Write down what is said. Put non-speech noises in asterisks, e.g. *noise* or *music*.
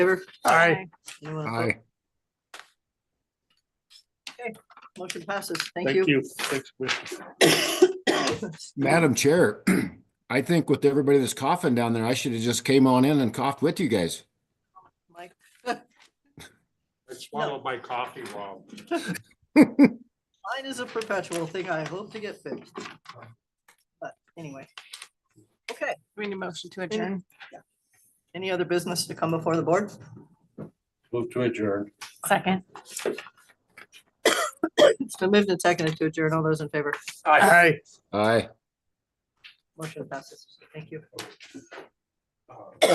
favor? Aye. Anyone opposed? Aye. Motion passes. Thank Thank you. you. Thanks, Commissioner. Madam Chair, *clears throat* I think with everybody that's coughing down there, I should have just came on in and coughed with you guys. *coughs* Mike, I swallowed my coffee, Rob. mine is a perpetual thing. I hope to get fixed. But anyway. Okay, We need a motion to adjourn. any other business to come before the board? Move to adjourn. Second. It's been moved and seconded to adjourn. All those in favor? Aye. Aye. Motion passes. Thank you. Aye.